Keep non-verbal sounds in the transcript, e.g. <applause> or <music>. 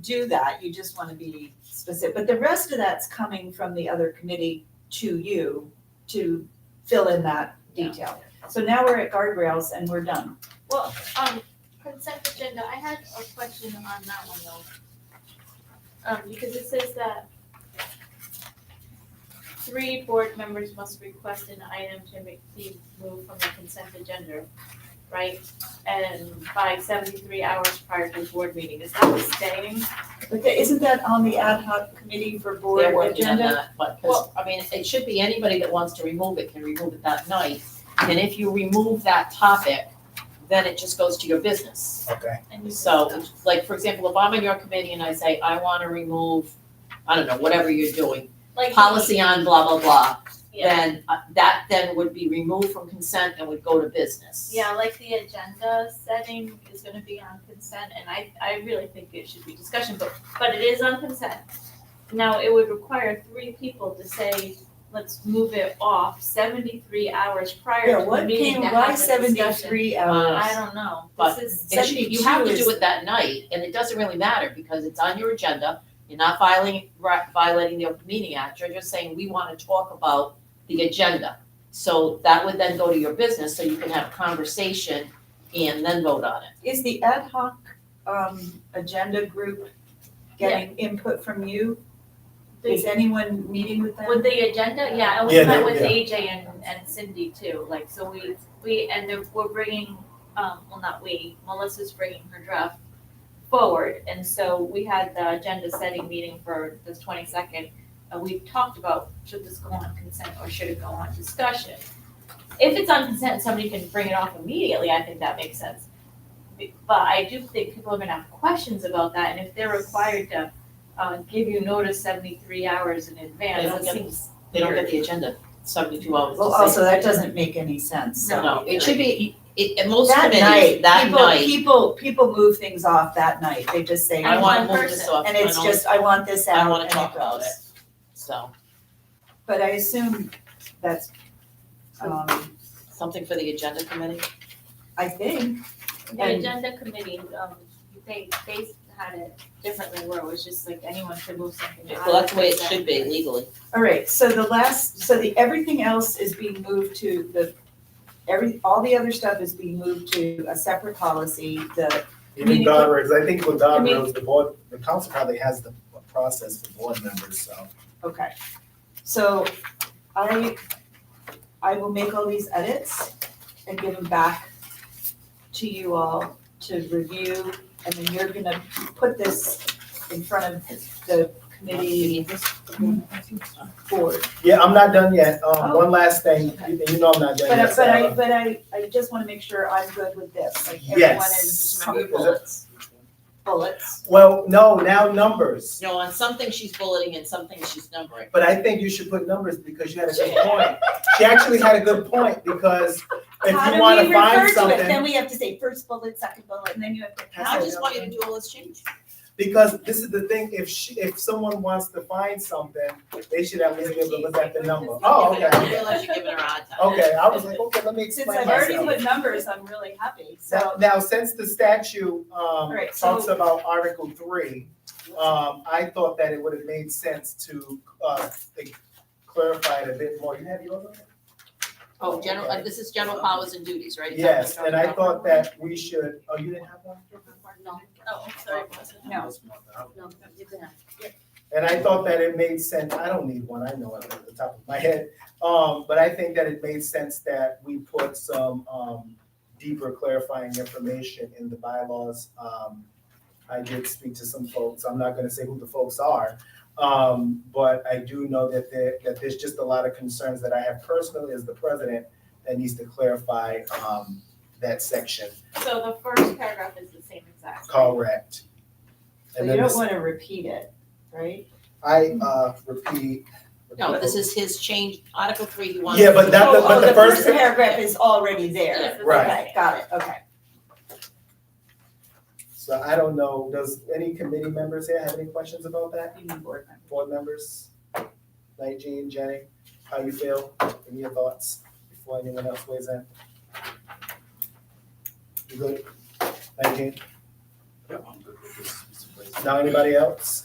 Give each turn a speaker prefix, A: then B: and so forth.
A: do that, you just wanna be specific, but the rest of that's coming from the other committee to you to fill in that detail. So now we're at guardrails and we're done.
B: Well, um, consent agenda, I had a question on that one though. Um, because it says that three board members must request an item to make, be moved from the consent agenda, right? And by seventy-three hours prior to the board meeting, is that staying?
A: But the- isn't that on the ad hoc committee for board
C: They're working on
B: uh,
A: agenda?
C: that, but, 'cause, I mean, it should be anybody that wants to remove it can remove it that night. And if you remove that topic, then it just goes to your business.
D: Okay.
B: And you-
C: So, like, for example, if I'm on your committee and I say, I wanna remove, I don't know, whatever you're doing,
B: Like.
C: policy on blah, blah, blah,
B: Yeah,
C: then uh, that then would be removed from consent and would go to business.
B: yeah, like the agenda setting is gonna be on consent and I, I really think it should be discussion, but, but it is on consent. Now, it would require three people to say, let's move it off seventy-three hours prior
A: Yeah,
B: to the
A: what
B: meeting
A: came,
B: to have
A: why
B: the discussion.
A: seventy-three
B: I
A: hours?
B: don't know,
C: But
B: this is,
C: It should- you have to
A: 72
C: do it that night, and it doesn't really matter, because it's on your agenda, you're not filing, ri- violating the Open Meeting Act, you're just saying, we wanna talk about the agenda. So that would then go to your business, so you can have a conversation and then vote on it.
A: Is the ad hoc, um, agenda group getting input from you? Is
B: the-
A: anyone meeting with them?
B: with the agenda, yeah, I was
D: Yeah,
B: met
D: they-
B: with
D: yeah.
B: AJ and, and Cindy too, like, so we, we, and they're- we're bringing, um, well, not we, Melissa's bringing her draft forward, and so we had the agenda setting meeting for the twenty-second, and we talked about, should this go on consent or should it go on discussion? If it's on consent, somebody can bring it off immediately, I think that makes sense. But I do think people are gonna have questions about that, and if they're required to, uh, give you notice seventy-three hours in
C: They
B: advance,
C: don't
B: it
C: get-
B: seems
C: They don't get the agenda seventy-two hours to
A: Well,
C: say.
A: also, that doesn't make any sense, so.
C: No, it should be, it, at most
A: That
C: committees,
A: night,
C: that
A: people,
C: night,
A: people, people move things off that night, they just say, "Oh,"
C: I
B: And
C: wanna
B: one
C: move this
B: person,
C: off,
A: and
C: I
A: it's
C: don't-
A: just, I want this
C: I
A: out,
C: wanna
A: and it
C: talk about
A: goes.
C: it. So,
A: But I assume that's, um,
C: something for the agenda committee,
A: I think,
B: The
A: And-
B: agenda committee, um, they, they had it differently where it was just like anyone could move something out.
C: well, that's the way it
B: of
C: should be legally.
A: all right, so the last, so the, everything else is being moved to the, every, all the other stuff is being moved to a separate policy, the,
D: You mean
A: Meaningful-
D: Don Rhodes, I think with Don
B: I mean-
D: Rhodes, the board, the council probably has the process for board members, so.
A: okay. So I, I will make all these edits and give them back to you all to review, and then you're gonna put this in front of the committee board.
D: Yeah, I'm not done yet, um,
A: Oh.
D: one last thing, you you know I'm not done
A: But,
D: yet,
A: I- but I,
D: Sarah.
A: but I, I just wanna make sure I'm good with this, like everyone
D: Yes.
A: is
C: Just remember your
A: comfortable.
C: bullets.
A: bullets.
D: Well, no, now numbers,
C: No, on something she's bulleting and something she's numbering.
D: but I think you should put numbers because you had
A: <laughs>
D: a good point. She actually had a good point, because if you wanna find
A: How do we refer to it, then
D: something,
A: we have to say first bullet, second bullet, and then you have to.
C: And I just want you to do all this change.
D: because this is the thing, if she, if someone wants to find something, they should at least be able to look at the number. Oh,
C: You're giving her-
D: okay,
C: I realize you're giving her a hard time.
D: okay, I was like, okay, let me
A: Since
D: explain
A: I've
D: myself.
A: already put numbers, I'm really happy,
D: Now,
A: so,
D: now, since the statute, um,
A: right, so-
D: talks about Article three, um, I thought that it would have made sense to, uh, think- clarify it a bit more. You have yours on there?
C: Oh, general, uh, this is general powers and duties, right? Is that what
D: Yes,
C: we're
D: and I
C: talking
D: thought that we should, oh, you didn't have one?
B: No, oh, I'm sorry, Melissa.
A: No.
D: And I thought that it made sense, I don't need one, I know it off the top of my head. Um, but I think that it made sense that we put some, um, deeper clarifying information in the bylaws. Um, I did speak to some folks, I'm not gonna say who the folks are. Um, but I do know that there, that there's just a lot of concerns that I have personally as the president that needs to clarify, um, that section,
B: So the first paragraph is the same exact.
D: correct.
A: so
D: And
A: you
D: then
A: don't
D: this-
A: wanna repeat it, right?
D: I, uh, repeat.
C: about? No, this is his change, Article three, he wants.
D: Yeah, but that-
A: Oh,
D: but
A: oh,
D: the first-
A: paragraph is already
B: Yes,
A: there,
B: it's
D: Right.
A: okay, got it, okay.
D: So I don't know, does any committee members here have any questions about that?
A: You need board members.
D: Board members? Nineteen, Jenny, how you feel? Any your thoughts before anyone else weighs in? You good? Nineteen?
E: Yeah, I'm good with this, Mr. President.
D: Now, anybody else?